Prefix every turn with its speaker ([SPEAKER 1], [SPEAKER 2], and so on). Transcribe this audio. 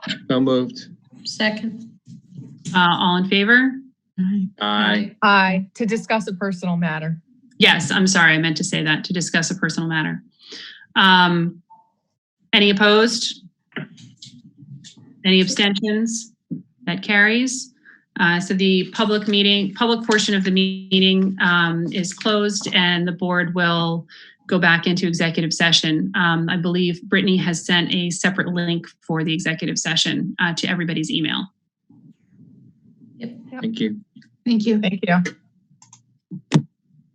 [SPEAKER 1] So moved.
[SPEAKER 2] Second.
[SPEAKER 3] Uh, all in favor?
[SPEAKER 1] Aye.
[SPEAKER 4] Aye, to discuss a personal matter.
[SPEAKER 3] Yes, I'm sorry, I meant to say that, to discuss a personal matter. Um, any opposed? Any abstentions? That carries. Uh, so the public meeting, public portion of the meeting, um, is closed and the board will go back into executive session. Um, I believe Brittany has sent a separate link for the executive session, uh, to everybody's email.
[SPEAKER 1] Thank you.
[SPEAKER 5] Thank you.
[SPEAKER 4] Thank you.